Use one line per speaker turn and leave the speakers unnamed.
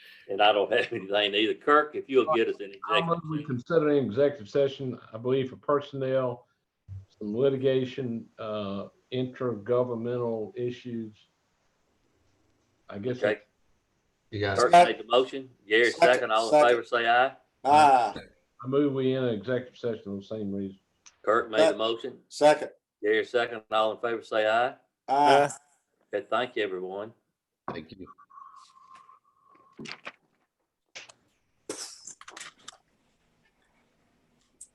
and I don't have anything either. Kirk, if you'll get us an
I move
executive.
we
session.
consider an executive session, I believe, for personnel, some litigation, uh, intergovernmental issues. I guess.
Okay,
You guys,
Kirk made the motion. Gary, second. All in favor, say aye.
Ah,
I move we in an executive session for the same reason.
Kirk made the motion.
second.
Gary, second. All in favor, say aye.
Ah.
Okay, thank you, everyone.
thank you.